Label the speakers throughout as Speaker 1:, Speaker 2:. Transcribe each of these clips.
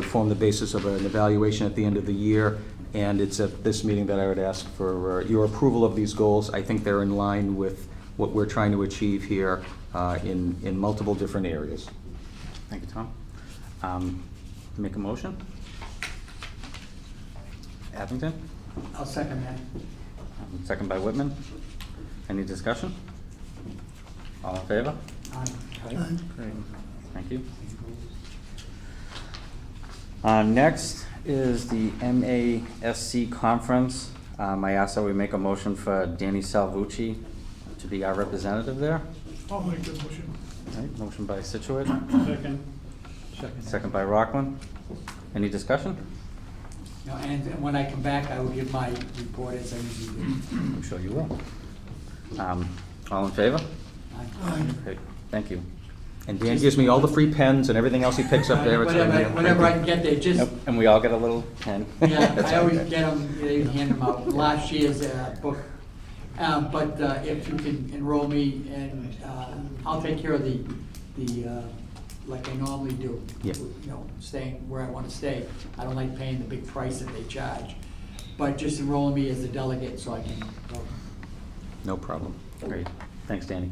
Speaker 1: form the basis of an evaluation at the end of the year, and it's at this meeting that I would ask for uh, your approval of these goals. I think they're in line with what we're trying to achieve here uh, in, in multiple different areas.
Speaker 2: Thank you, Tom. Um, Make a motion? Abington?
Speaker 3: I'll second that.
Speaker 2: Um, Second by Whitman. Any discussion? All in favor?
Speaker 3: Aye.
Speaker 2: Great. Thank you. Uh, Next is the MASC Conference. Um, I ask that we make a motion for Danny Salvucci to be our representative there.
Speaker 4: I'll make the motion.
Speaker 2: All right, Motion by Situate,
Speaker 4: Second.
Speaker 2: second by Rockland. Any discussion?
Speaker 3: No, and then when I come back, I will give my report as I usually do.
Speaker 2: I'm sure you will. Um, All in favor?
Speaker 3: Aye.
Speaker 2: Great, Thank you.
Speaker 1: And Dan gives me all the free pens and everything else he picks up there. It's
Speaker 3: Whatever, whenever I can get there, just,
Speaker 2: Yep, And we all get a little pen.
Speaker 3: yeah,
Speaker 2: That's
Speaker 3: I always
Speaker 2: okay.
Speaker 3: get them, they hand them out, last year's uh, book. Uh, But uh, if you can enroll me, and uh, I'll take care of the, the, uh, like I normally do.
Speaker 1: Yeah.
Speaker 3: You know, staying where I want to stay. I don't like paying the big price that they charge. But just enroll me as a delegate so I can vote.
Speaker 1: No problem.
Speaker 2: Great, thanks, Danny.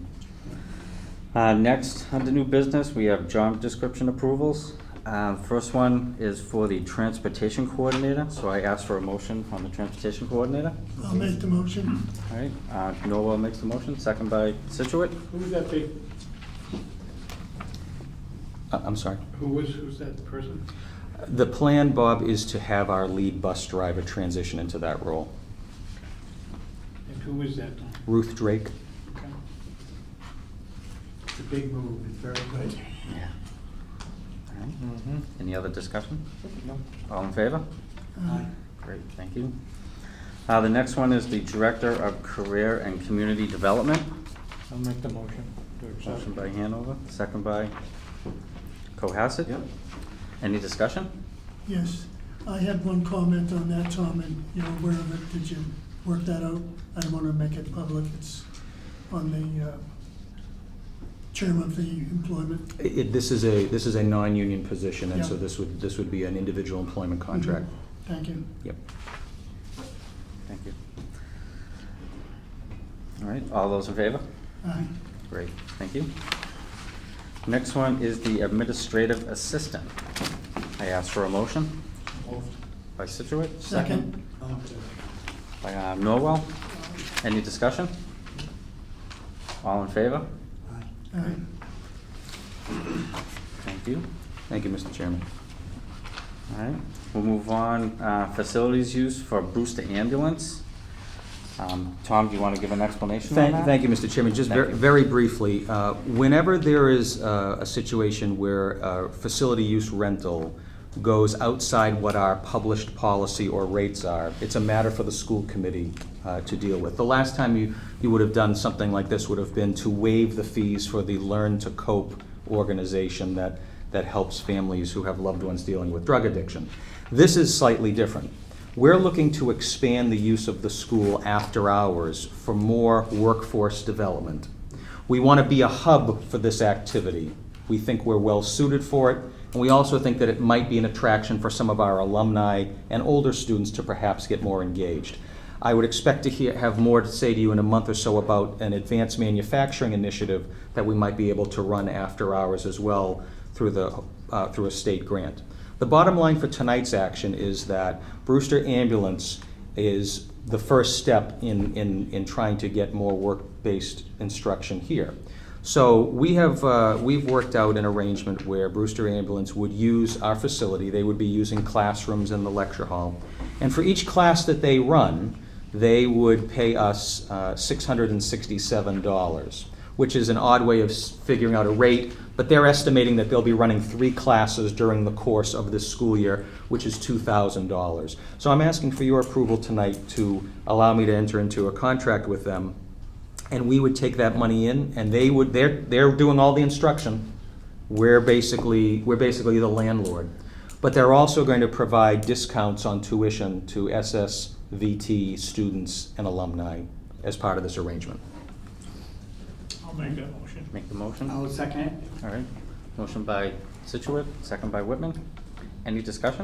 Speaker 2: Uh, Next, under new business, we have job description approvals. Uh, First one is for the transportation coordinator, so I ask for a motion on the transportation coordinator.
Speaker 4: I'll make the motion.
Speaker 2: All right, uh, Noel makes the motion, second by Situate.
Speaker 4: Who would that be?
Speaker 1: Uh, I'm sorry.
Speaker 4: Who was, who's that person?
Speaker 1: The plan, Bob, is to have our lead bus driver transition into that role.
Speaker 4: And who is that?
Speaker 1: Ruth Drake.
Speaker 4: Okay.
Speaker 3: It's a big move, it's very good.
Speaker 2: Yeah. All right. Any other discussion? No. All in favor?
Speaker 1: Mm-hmm.
Speaker 3: Uh,
Speaker 2: Great, thank you. Uh, The next one is the Director of Career and Community Development.
Speaker 5: I'll make the motion to accept.
Speaker 2: Motion by Hanover, second by Cohasset.
Speaker 1: Yep.
Speaker 2: Any discussion?
Speaker 6: Yes, I had one comment on that, Tom, and you're aware of it, did you work that out? I don't want to make it public, it's on the uh, chairman of the employment.
Speaker 1: I- it- This is a, this is a non-union position, and so
Speaker 6: Yeah.
Speaker 1: this would, this would be an individual employment contract.
Speaker 3: Mm-hmm.
Speaker 6: Thank you.
Speaker 1: Yep.
Speaker 2: Thank you. All right, all those in favor?
Speaker 6: Aye.
Speaker 2: Great, thank you. Next one is the Administrative Assistant. I ask for a motion by Situate,
Speaker 6: Second.
Speaker 2: by uh, Norwell. Any discussion? All in favor?
Speaker 6: Aye.
Speaker 2: Thank you.
Speaker 1: Thank you, Mr. Chairman.
Speaker 2: All right, we'll move on, uh, facilities use for Brewster Ambulance. Um, Tom, do you want to give an explanation on
Speaker 1: Thank,
Speaker 2: that?
Speaker 1: thank you, Mr. Chairman. Just
Speaker 2: Thank
Speaker 1: ver-
Speaker 2: you.
Speaker 1: very briefly, uh, whenever there is uh, a situation where uh, facility use rental goes outside what our published policy or rates are, it's a matter for the school committee uh, to deal with. The last time you, you would have done something like this would have been to waive the fees for the Learn to Cope organization that, that helps families who have loved ones dealing with drug addiction. This is slightly different. We're looking to expand the use of the school after hours for more workforce development. We want to be a hub for this activity. We think we're well suited for it, and we also think that it might be an attraction for some of our alumni and older students to perhaps get more engaged. I would expect to hear, have more to say to you in a month or so about an advanced manufacturing initiative that we might be able to run after hours as well through the, uh, through a state grant. The bottom line for tonight's action is that Brewster Ambulance is the first step in, in, in trying to get more work-based instruction here. So we have, uh, we've worked out an arrangement where Brewster Ambulance would use our facility. They would be using classrooms in the lecture hall. And for each class that they run, they would pay us uh, $667 which is an odd way of s- figuring out a rate, but they're estimating that they'll be running three classes during the course of this school year, which is $2,000. So I'm asking for your approval tonight to allow me to enter into a contract with them, and we would take that money in, and they would, they're, they're doing all the instruction. We're basically, we're basically the landlord. But they're also going to provide discounts on tuition to SSVT students and alumni as part of this arrangement.
Speaker 4: I'll make that motion.
Speaker 1: Oh.
Speaker 2: Make the motion.
Speaker 3: I'll
Speaker 2: All
Speaker 3: second it.
Speaker 2: right, motion by Situate, second by Whitman. Any discussion?